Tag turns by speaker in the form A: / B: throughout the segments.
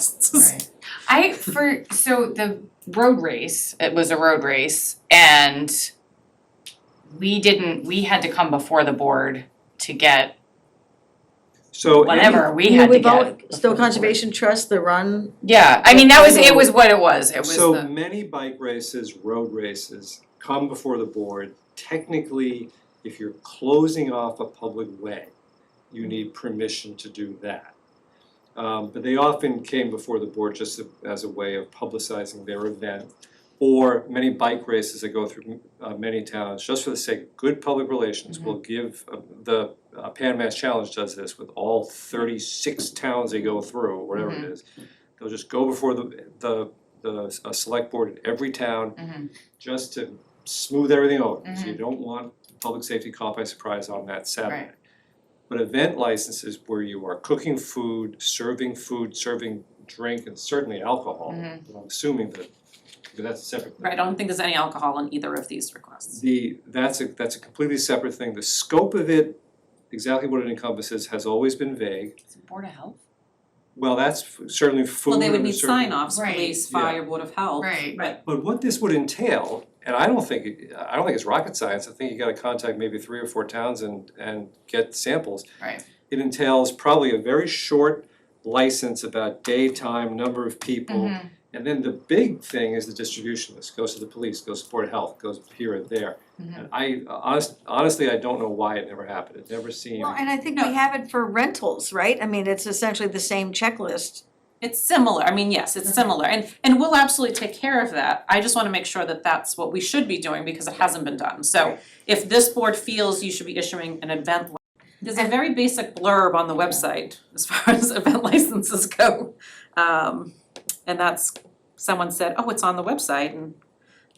A: licenses.
B: Right. I for so the road race, it was a road race and we didn't we had to come before the board to get
C: So. any-
B: whatever we had to
D: We've all-
B: get.
D: Stowe
B: before the board.
D: Conservation Trust, the run,
B: Yeah, I mean that was it was what it was. It was
C: So
B: the
C: many bike races, road races come before the board. Technically, if you're closing off a public way, you need permission to do that. Um, but they often came before the board just a- as a way of publicizing their event. Or many bike races that go through uh, many towns, just for the sake of good public relations, will give, uh, the uh, Pan Mass Challenge does this with all thirty-six towns they go through, or whatever it
B: Mhm.
C: is. They'll just go before the, the, the, a select board in every town,
B: Mhm.
C: just to smooth everything over, because
A: Mm-hmm.
C: you don't want public safety caught by surprise on that Saturday.
B: Right.
C: But event licenses where you are cooking food, serving food, serving drink, and certainly alcohol,
B: Mhm.
C: I'm assuming that, because that's a separate.
A: Mm-hmm. Right, I don't think there's any alcohol in either of these requests.
C: The, that's a, that's a completely separate thing, the scope of it, exactly what it encompasses, has always been vague.
B: Is it Board of Health.
C: Well, that's certainly food
A: Well, they would
C: and
A: need
C: certain-
A: sign offs,
B: Right.
A: police,
C: Yeah.
A: fire, board of health.
B: Right.
A: But
C: But what this would entail, and I don't think, it- I don't think it's rocket science, I think you gotta contact maybe three or four towns and, and get samples.
B: Right.
C: It entails probably a very short license about daytime, number of people.
B: Mhm.
C: And then the big thing is the distribution list, goes to the police, goes to Board of Health, goes here and there.
B: Mhm.
C: And I, honest, honestly, I don't know why it never happened, it never seemed.
D: well, and I think we have it for rentals, right? I mean, it's essentially the same checklist.
A: it's similar, I mean, yes, it's similar, and and we'll absolutely take care of that. I just wanna make sure that that's what we should be doing because it hasn't been done. So if this board feels you should be issuing an event, li- there's a very basic blurb on the website as far as event licenses go. Um, and that's, someone said, oh, it's on the website and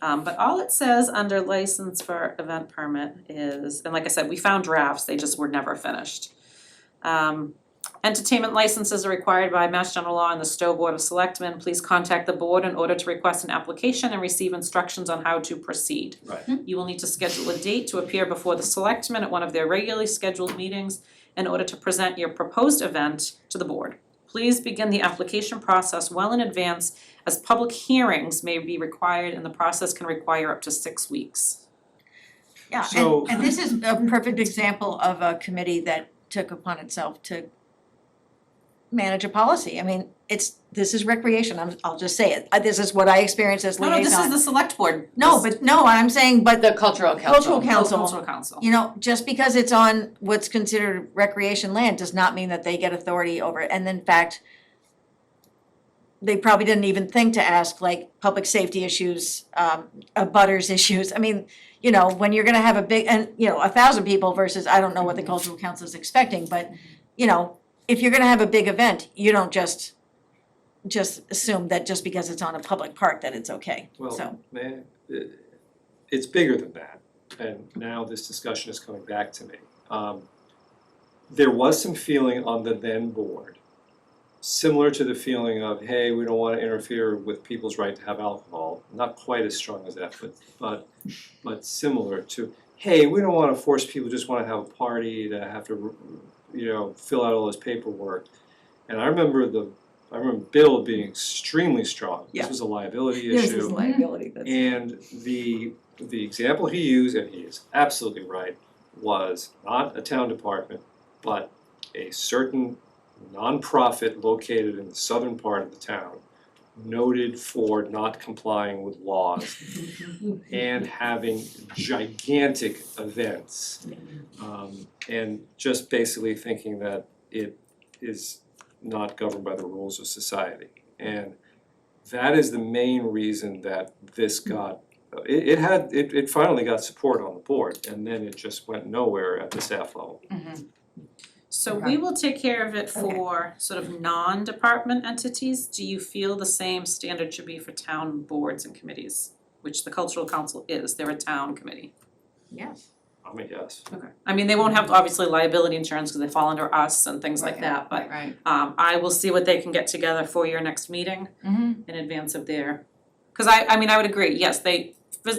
A: um, but all it says under license for event permit is, and like I said, we found drafts, they just were never finished. Um, entertainment licenses are required by Mass General Law and the Stowe Board of Selectmen. Please contact the board in order to request an application and receive instructions on how to proceed.
C: Right.
A: You will need to schedule a date to appear before the selectmen at one of their regularly scheduled meetings in order to present your proposed event to the board. Please begin the application process well in advance as public hearings may be required and the process can require up to six weeks.
D: Yeah,
C: So-
D: and and this is a perfect example of a committee that took upon itself to manage a policy. I mean, it's, this is recreation, I'm, I'll just say it. Uh, This is what I experienced as
A: No, no, this is
D: liaison.
A: the select board.
D: No, but no, I'm saying, but
B: The Cultural Council.
D: cultural council,
A: Cultural council.
D: you know, just because it's on what's considered recreation land does not mean that they get authority over it. And in fact, they probably didn't even think to ask like public safety issues, um, uh, butters issues. I mean, you know, when you're gonna have a big, and, you know, a thousand people versus, I don't know what the cultural council is expecting, but, you know, if you're gonna have a big event, you don't just, just assume that just because it's on a public park that it's okay, so.
C: Well, man, it- it's bigger than that, and now this discussion is coming back to me. Um, There was some feeling on the then board, similar to the feeling of, hey, we don't wanna interfere with people's right to have alcohol. Not quite as strong as that, but but but similar to, hey, we don't wanna force people, who just wanna have a party to have to, you know, fill out all this paperwork. And I remember the, I remember Bill being extremely strong.
D: Yeah.
C: This was a liability issue.
D: This is liability, that's.
C: And the, the example he used, and he is absolutely right, was not a town department, but a certain nonprofit located in the southern part of the town, noted for not complying with laws and having gigantic events. Um, and just basically thinking that it is not governed by the rules of society. And that is the main reason that this got, it, it had, it, it finally got support on the board, and then it just went nowhere at the staff level.
B: Mhm.
A: So we will take care of it for sort of non-department entities. Do you feel the same standard should be for town boards and committees? Which the cultural council is, they're a town committee.
D: Yes.
C: I'm a yes.
A: Okay. I mean, they won't have obviously liability insurance because they fall under us and things like
D: Right.
A: that, but
B: Right.
A: um I will see what they can get together for your next meeting.
B: Mhm.
A: in advance of their, cause I, I mean, I would agree, yes, they,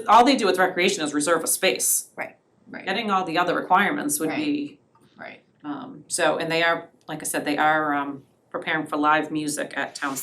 A: all they do with recreation is reserve a space.
D: Right,
B: right.
A: Getting all the other requirements would be,
B: Right.
A: um, so, and they are, like I said, they are, um, preparing for live music at town